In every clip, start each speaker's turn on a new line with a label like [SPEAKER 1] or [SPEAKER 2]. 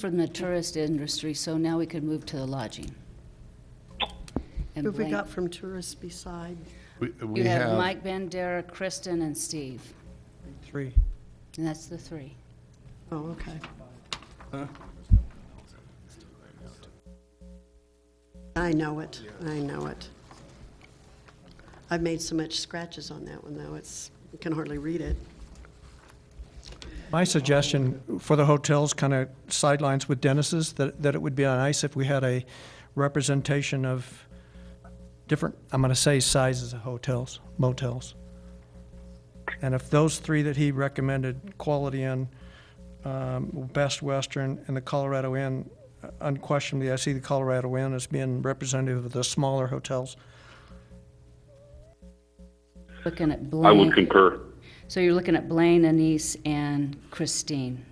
[SPEAKER 1] from the tourist industry, so now we can move to the lodging. And
[SPEAKER 2] Who have we
[SPEAKER 1] blank-
[SPEAKER 2] got from tourists beside?
[SPEAKER 3] We- We
[SPEAKER 1] You have
[SPEAKER 3] have,
[SPEAKER 1] Mike Bandera, Kristen, and Steve,
[SPEAKER 4] Three.
[SPEAKER 1] and that's the three.
[SPEAKER 2] Oh, okay. I know it, I know it. I've made so much scratches on that one, though, it's, you can hardly read it.
[SPEAKER 4] My suggestion for the hotels kind of sidelines with Dennis's, that, that it would be nice if we had a representation of different, I'm going to say sizes of hotels, motels. And if those three that he recommended, Quality Inn, um, Best Western, and the Colorado Inn, unquestionably, I see the Colorado Inn as being representative of the smaller hotels.
[SPEAKER 1] Looking at
[SPEAKER 5] I
[SPEAKER 1] Blaine,
[SPEAKER 5] would concur.
[SPEAKER 1] so you're looking at Blaine, Anise, and Christine.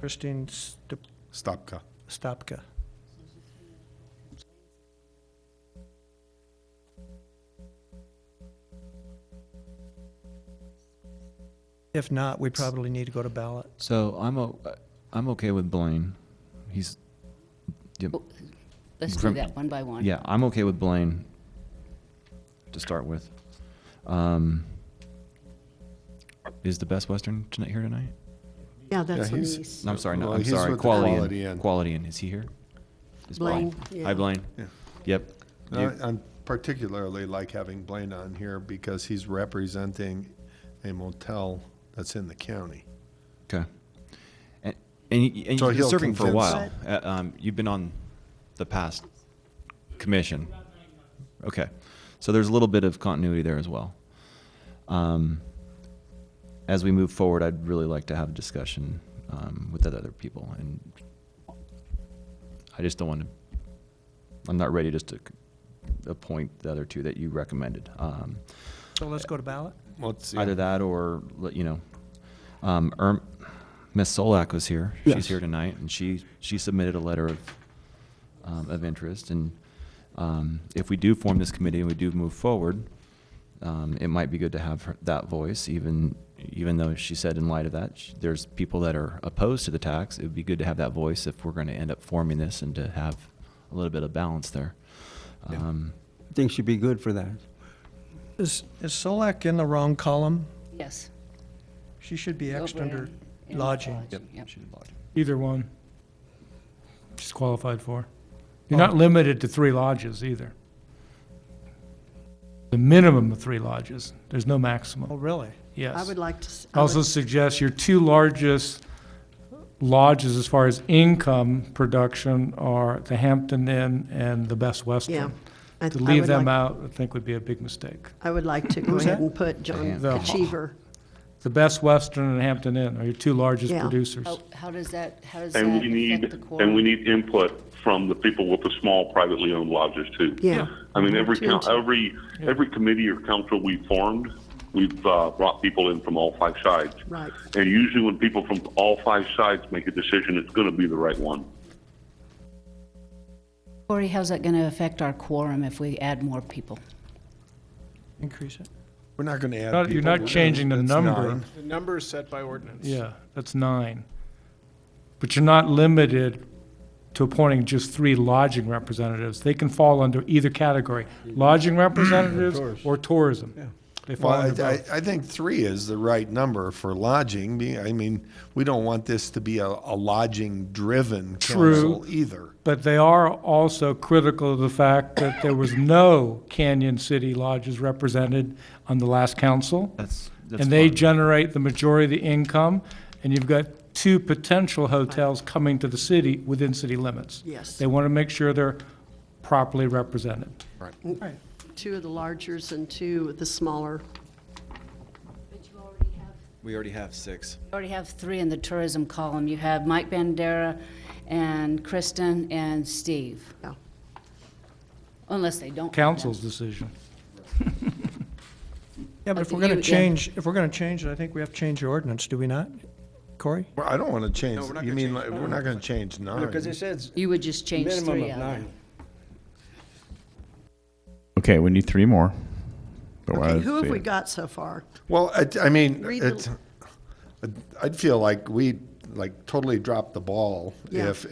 [SPEAKER 4] Christine Stup-
[SPEAKER 3] Stopka.
[SPEAKER 4] Stopka. If not, we probably need to go to ballot.
[SPEAKER 6] So I'm o- I'm okay with Blaine. He's
[SPEAKER 1] Let's do
[SPEAKER 6] Grim-
[SPEAKER 1] that one by one.
[SPEAKER 6] yeah, I'm okay with Blaine to start with. Um, is the best Western tonight here tonight?
[SPEAKER 2] Yeah, that's
[SPEAKER 3] Yeah,
[SPEAKER 2] on the
[SPEAKER 3] he's-
[SPEAKER 2] east.
[SPEAKER 6] No, I'm sorry. No,
[SPEAKER 3] Well,
[SPEAKER 6] I'm
[SPEAKER 3] he's
[SPEAKER 6] sorry.
[SPEAKER 3] with the
[SPEAKER 6] Quality,
[SPEAKER 3] Quality
[SPEAKER 6] Inn.
[SPEAKER 3] Inn.
[SPEAKER 6] Quality Inn. Is he here? Is
[SPEAKER 2] Blaine, yeah.
[SPEAKER 6] Hi, Blaine.
[SPEAKER 3] Yeah.
[SPEAKER 6] Yep.
[SPEAKER 3] No,
[SPEAKER 6] You-
[SPEAKER 3] I- Uh, I'm particularly like having Blaine on here because he's representing a motel that's in the county.
[SPEAKER 6] Okay. And, and, you- and
[SPEAKER 3] So
[SPEAKER 6] you've been
[SPEAKER 3] he'll
[SPEAKER 6] serving for a
[SPEAKER 3] convince-
[SPEAKER 6] while. Uh, um, you've been on the past commission. Okay. So there's a little bit of continuity there as well. Um, as we move forward, I'd really like to have a discussion um, with the other people. And I just don't want to, I'm not ready just to c- appoint the other two that you recommended. Um,
[SPEAKER 4] So let's go to ballot?
[SPEAKER 3] Let's see.
[SPEAKER 6] Either that or, let- you know, um, Erm, Ms. Solak was here. She's here tonight, and she, she submitted a letter of, um, of interest. And, um, if we do form this committee and we do move forward, um, it might be good to have her- that voice, even, even though she said in light of that, sh- there's people that are opposed to the tax. It would be good to have that voice if we're gonna end up forming this and to have a little bit of balance there. Um,
[SPEAKER 7] I think she'd be good for that.
[SPEAKER 4] Is, is Solak in the wrong column?
[SPEAKER 1] Yes.
[SPEAKER 4] She should be
[SPEAKER 1] Go
[SPEAKER 4] Xed under
[SPEAKER 1] Blaine and
[SPEAKER 4] lodging.
[SPEAKER 1] Yep.
[SPEAKER 8] Either one. She's qualified for. You're not limited to three lodges either. The minimum of three lodges. There's no
[SPEAKER 4] Oh,
[SPEAKER 8] maximum,
[SPEAKER 4] really?
[SPEAKER 2] I
[SPEAKER 8] yes.
[SPEAKER 2] would like to. s- I
[SPEAKER 8] Also
[SPEAKER 2] would-
[SPEAKER 8] suggest your two largest lodges as far as income production are the Hampton Inn and the Best
[SPEAKER 2] Yeah.
[SPEAKER 8] Western.
[SPEAKER 2] I-
[SPEAKER 8] To
[SPEAKER 2] I
[SPEAKER 8] leave
[SPEAKER 2] would
[SPEAKER 8] them
[SPEAKER 2] like-
[SPEAKER 8] out, I think would be a big mistake.
[SPEAKER 2] I would like to go
[SPEAKER 4] Who's
[SPEAKER 2] ahead
[SPEAKER 4] that?
[SPEAKER 2] and put John
[SPEAKER 8] The-
[SPEAKER 2] Achiever.
[SPEAKER 8] The Best Western and Hampton Inn are your two largest
[SPEAKER 2] Yeah. Oh,
[SPEAKER 8] producers.
[SPEAKER 1] How, how does that, how does that
[SPEAKER 5] And we
[SPEAKER 1] affect
[SPEAKER 5] need,
[SPEAKER 1] the
[SPEAKER 5] and we
[SPEAKER 1] quorum?
[SPEAKER 5] need input from the people with the small privately owned lodges too.
[SPEAKER 2] Yeah.
[SPEAKER 5] I mean, every,
[SPEAKER 2] Two
[SPEAKER 5] coun-
[SPEAKER 2] and two.
[SPEAKER 5] every, every committee or council we formed, we've uh, brought people in from all five sides.
[SPEAKER 2] Right.
[SPEAKER 5] And usually when people from all five sides make a decision, it's going to be the right one.
[SPEAKER 1] Corey, how's that going to affect our quorum if we add more people?
[SPEAKER 4] Increase it.
[SPEAKER 3] We're not going to add
[SPEAKER 8] Not-
[SPEAKER 3] people.
[SPEAKER 8] You're not changing the
[SPEAKER 3] That's
[SPEAKER 8] number.
[SPEAKER 3] nine.
[SPEAKER 9] The number is set by ordinance.
[SPEAKER 8] Yeah, that's nine. But you're not limited to appointing just three lodging representatives. They can fall under either category, lodging representatives or tourism. They fall
[SPEAKER 3] Well,
[SPEAKER 8] under
[SPEAKER 3] I, I,
[SPEAKER 8] both.
[SPEAKER 3] I think three is the right number for lodging. Be- I mean, we don't want this to be a, a lodging-driven
[SPEAKER 8] True.
[SPEAKER 3] council either.
[SPEAKER 8] But they are also critical of the fact that there was no Canyon City lodges represented on the last council.
[SPEAKER 6] That's, that's
[SPEAKER 8] And they
[SPEAKER 6] fine.
[SPEAKER 8] generate the majority of the income, and you've got two potential hotels coming to the city within city limits.
[SPEAKER 2] Yes.
[SPEAKER 8] They want to make sure they're properly represented.
[SPEAKER 2] Two of the largers and two of the smaller.
[SPEAKER 6] We already have six.
[SPEAKER 1] You already have three in the tourism column. You have Mike Bandera and Kristen and Steve.
[SPEAKER 2] Yeah.
[SPEAKER 1] Unless they don't. have them.
[SPEAKER 8] council's decision.
[SPEAKER 4] Yeah, but if
[SPEAKER 1] Okay,
[SPEAKER 4] we're going
[SPEAKER 1] you-
[SPEAKER 4] to
[SPEAKER 1] yeah.
[SPEAKER 4] change, if we're going to change it, I think we have to change the ordinance, do we not? Corey?
[SPEAKER 3] Well, I don't want to change,
[SPEAKER 9] we're not
[SPEAKER 3] you
[SPEAKER 9] gonna
[SPEAKER 3] mean,
[SPEAKER 9] change
[SPEAKER 3] like, we're not going to change nine.
[SPEAKER 7] Because it says
[SPEAKER 1] You would just change
[SPEAKER 7] minimum
[SPEAKER 1] three
[SPEAKER 7] of
[SPEAKER 1] out of it.
[SPEAKER 7] nine.
[SPEAKER 10] Okay, we need three more. But we're
[SPEAKER 2] Okay,
[SPEAKER 10] at
[SPEAKER 2] who have we
[SPEAKER 10] three.
[SPEAKER 2] got so far?
[SPEAKER 3] Well, I, I mean,
[SPEAKER 2] Read the-
[SPEAKER 3] it's, I'd feel like we,
[SPEAKER 2] like totally dropped the ball
[SPEAKER 3] Yeah.
[SPEAKER 2] if